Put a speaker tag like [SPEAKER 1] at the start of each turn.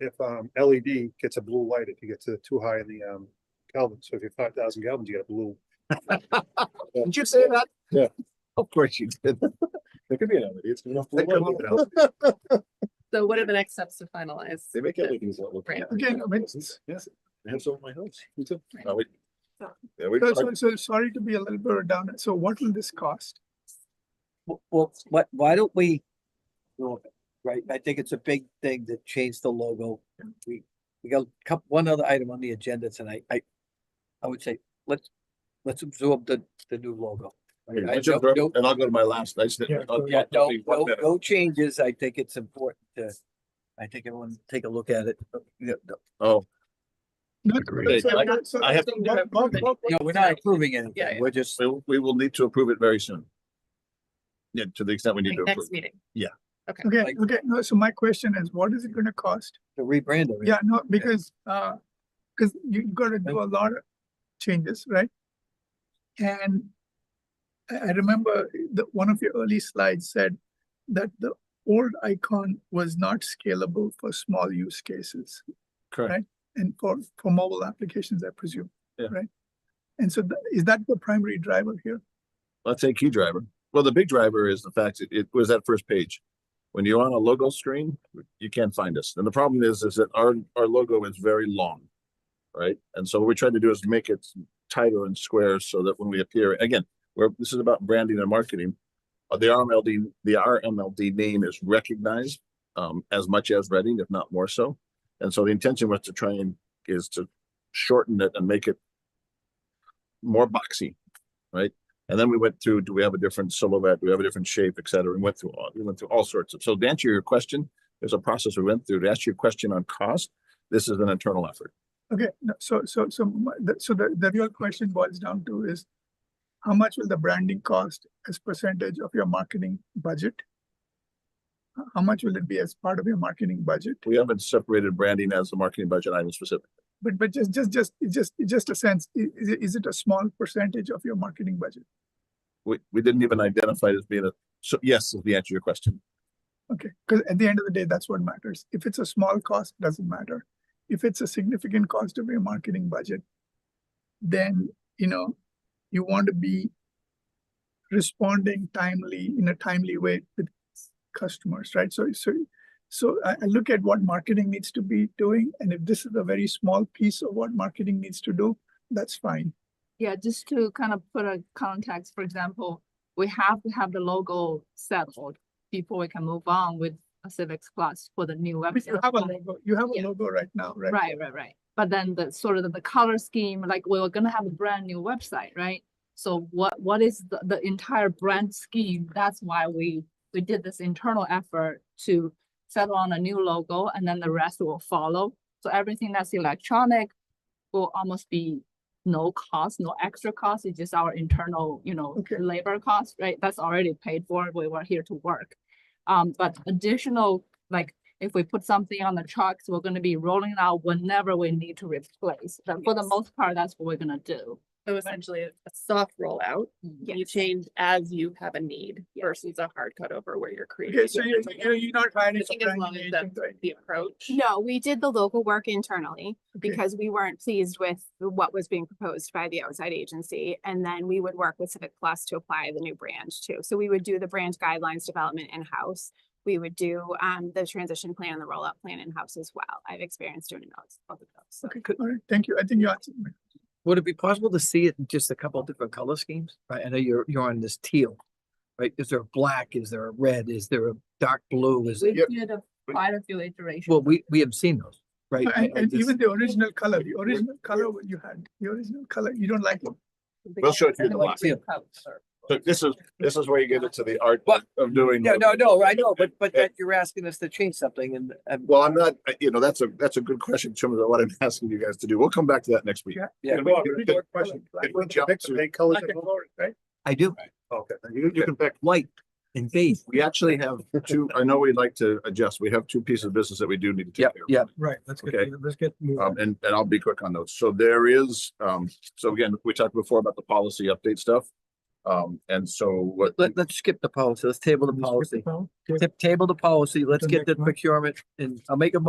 [SPEAKER 1] if um LED gets a blue light if you get to too high in the um Kelvin. So if you're five thousand Kelvin, you get a blue.
[SPEAKER 2] Did you say that?
[SPEAKER 1] Yeah.
[SPEAKER 2] Of course you did.
[SPEAKER 1] There could be an LED. It's good enough. blue
[SPEAKER 2] That could
[SPEAKER 1] light.
[SPEAKER 2] be an
[SPEAKER 3] So what are the next steps to finalize?
[SPEAKER 1] They make
[SPEAKER 3] it.
[SPEAKER 1] LEDs that look.
[SPEAKER 3] Right.
[SPEAKER 2] Again, I mean-
[SPEAKER 1] Yes, I have some in my house. Me too.
[SPEAKER 3] Right.
[SPEAKER 1] No, we- Yeah, we
[SPEAKER 4] So,
[SPEAKER 1] talked-
[SPEAKER 4] so, so sorry to be a little bit redundant. So what will this cost?
[SPEAKER 5] W- Well, what, why don't we? do it, Right, I think it's a big thing to change the logo. We, we got a couple, one other item on the agenda tonight. I, I would say, let's, let's absorb the, the new logo.
[SPEAKER 1] Okay,
[SPEAKER 5] I
[SPEAKER 1] I jumped
[SPEAKER 5] don't-
[SPEAKER 1] up,
[SPEAKER 5] don't-
[SPEAKER 1] And I'll go to my last, I just.
[SPEAKER 4] Yeah,
[SPEAKER 1] I'll-
[SPEAKER 4] go
[SPEAKER 5] Yeah,
[SPEAKER 1] I'll
[SPEAKER 5] no,
[SPEAKER 1] be one
[SPEAKER 5] no,
[SPEAKER 1] minute.
[SPEAKER 5] no changes. I think it's important to, I think everyone take a look at it. Yeah, no,
[SPEAKER 1] Oh,
[SPEAKER 4] Not-
[SPEAKER 1] Agreed.
[SPEAKER 4] so-
[SPEAKER 1] I-
[SPEAKER 4] so- so-
[SPEAKER 1] I have-
[SPEAKER 4] so what- what- what-
[SPEAKER 5] No, we're not approving anything.
[SPEAKER 3] yeah.
[SPEAKER 5] We're just,
[SPEAKER 1] we, we will need to approve it very soon. Yeah, to the extent we need to
[SPEAKER 3] Like,
[SPEAKER 1] approve.
[SPEAKER 3] Next meeting.
[SPEAKER 4] Okay,
[SPEAKER 5] like-
[SPEAKER 4] okay, no, so my question is, what is it gonna cost?
[SPEAKER 5] to rebrand it.
[SPEAKER 4] Yeah, no, because, uh, cause you you gotta do a lot of changes, right? And I, I remember the, one of your early slides said that the old icon was not scalable for small use cases.
[SPEAKER 1] Correct.
[SPEAKER 4] Right? And for, for mobile applications, I presume.
[SPEAKER 1] Yeah.
[SPEAKER 4] Right? And so tha- is that the primary driver here?
[SPEAKER 1] let's say key driver. Well, the big driver is the fact that it was that first page. When you're on a logo screen, you can't find us. And the problem is, is that our, our logo is very long. Right? And so what we're trying to do is make it tighter and square so that when we appear, again, we're this is about branding and marketing. Uh, The RMLD, the RMLD name is recognized um, as much as Reading, if not more so. And so the intention was to try and is to shorten it and make it more boxy. And then we went through, do we have a different silhouette? Do we have a different shape, et cetera? And went through, all we went through all sorts of, so to answer your question, there's a process we went through. To answer your question on cost, this is an internal effort.
[SPEAKER 4] Okay, no, so, so, so, my- the- so the, the real question boils down to is how much will the branding cost as percentage of your marketing budget? H- How much will it be as part of your marketing budget?
[SPEAKER 1] We haven't separated branding as a marketing budget item specific.
[SPEAKER 4] But, but just, just, just, it's just, it's just a sense, i- is, it- is it a small percentage of your marketing budget?
[SPEAKER 1] We, we didn't even identify it as being a, so yes, is the answer to your question.
[SPEAKER 4] Okay, because at the end of the day, that's what matters. If it's a small cost, doesn't matter. If it's a significant cost of your marketing budget, then, you know, you want to be responding timely, in a timely way with customers, right? So, so, so I, I look at what marketing needs to be doing, and if this is a very small piece of what marketing needs to do, that's fine.
[SPEAKER 3] Yeah, just to kind of put a context, for example, we have to have the logo settled before we can move on with Civics Plus for the new
[SPEAKER 4] I mean,
[SPEAKER 3] website.
[SPEAKER 4] you have a logo, you have a
[SPEAKER 3] Yeah.
[SPEAKER 4] logo right now, right?
[SPEAKER 3] Right, right, right. But then the sort of the- the color scheme, like we were gonna have a brand new website, right? So what, what is the, the entire brand scheme? That's why we, we did this internal effort to settle on a new logo and then the rest will follow. So everything that's electronic will almost be no cost, no extra cost. It's just our internal, you know,
[SPEAKER 4] Okay.
[SPEAKER 3] labor cost, right? That's already paid for. We were here to work. Um, but additional, like if we put something on the trucks, we're gonna be rolling out whenever we need to replace. But for the
[SPEAKER 6] Yes.
[SPEAKER 3] most part, that's what we're gonna do.
[SPEAKER 6] So essentially a a soft rollout, you change as you have a need versus a hard cutover where you're creating.
[SPEAKER 4] Okay, so you're, you're you're not hiring
[SPEAKER 6] I
[SPEAKER 4] a
[SPEAKER 6] think as long
[SPEAKER 4] branding
[SPEAKER 6] as
[SPEAKER 4] agent,
[SPEAKER 6] that's
[SPEAKER 4] right?
[SPEAKER 6] the approach.
[SPEAKER 7] No, we did the local work internally
[SPEAKER 4] Okay.
[SPEAKER 7] because we weren't pleased with what was being proposed by the outside agency. And then we would work with Civic Plus to apply the new brand too. So we would do the brand guidelines development in-house. We would do um the transition plan and the rollout plan in-house as well. I've experienced doing those, both of those.
[SPEAKER 4] Okay, all right, thank you. I think you answered my
[SPEAKER 5] Would it be possible to see it in just a couple of different color schemes? Right, I know you're, you're on this teal. Right, is there a black? Is there a red? Is there a dark blue? Is,
[SPEAKER 3] We
[SPEAKER 1] Yep.
[SPEAKER 3] did a-
[SPEAKER 1] We-
[SPEAKER 3] quite a few iterations.
[SPEAKER 5] well, we, we have seen those, right? I- I
[SPEAKER 4] And, and
[SPEAKER 5] just-
[SPEAKER 4] even the original color, the original color what you had, the original color, you don't like it.
[SPEAKER 1] We'll show it to you in the
[SPEAKER 3] Anyway,
[SPEAKER 1] block.
[SPEAKER 5] Yeah.
[SPEAKER 3] coats or-
[SPEAKER 1] So this is, this is where you get into the art
[SPEAKER 5] But-
[SPEAKER 1] of doing.
[SPEAKER 5] Yeah, no, no, I know, but, but
[SPEAKER 1] Yeah.
[SPEAKER 5] that you're asking us to change something and, and,
[SPEAKER 1] Well, I'm not, I- you know, that's a, that's a good question in terms of what I'm asking you guys to do. We'll come back to that next week.
[SPEAKER 4] Yeah.
[SPEAKER 5] yeah,
[SPEAKER 1] Can we- can- can we jump to-
[SPEAKER 2] colors
[SPEAKER 4] Black and gold, right?
[SPEAKER 5] I do.
[SPEAKER 1] Okay, you, you can pick.
[SPEAKER 5] White and beige.
[SPEAKER 1] We actually have two, I know we'd like to adjust. We have two pieces of business that we do need to take
[SPEAKER 5] Yep,
[SPEAKER 1] care of.
[SPEAKER 5] yep.
[SPEAKER 2] Right, let's get,
[SPEAKER 1] Okay.
[SPEAKER 2] let's get. moving.
[SPEAKER 1] Um, and, and I'll be quick on those. So there is, um, so again, we talked before about the policy update stuff. Um, and so what,
[SPEAKER 5] Let, let's skip the policy. Let's table the
[SPEAKER 2] Let's get
[SPEAKER 5] policy.
[SPEAKER 2] phone. Okay.
[SPEAKER 5] Ta- Table the policy. Let's
[SPEAKER 2] The
[SPEAKER 5] get the
[SPEAKER 2] next one.
[SPEAKER 5] procurement and I'll make a motion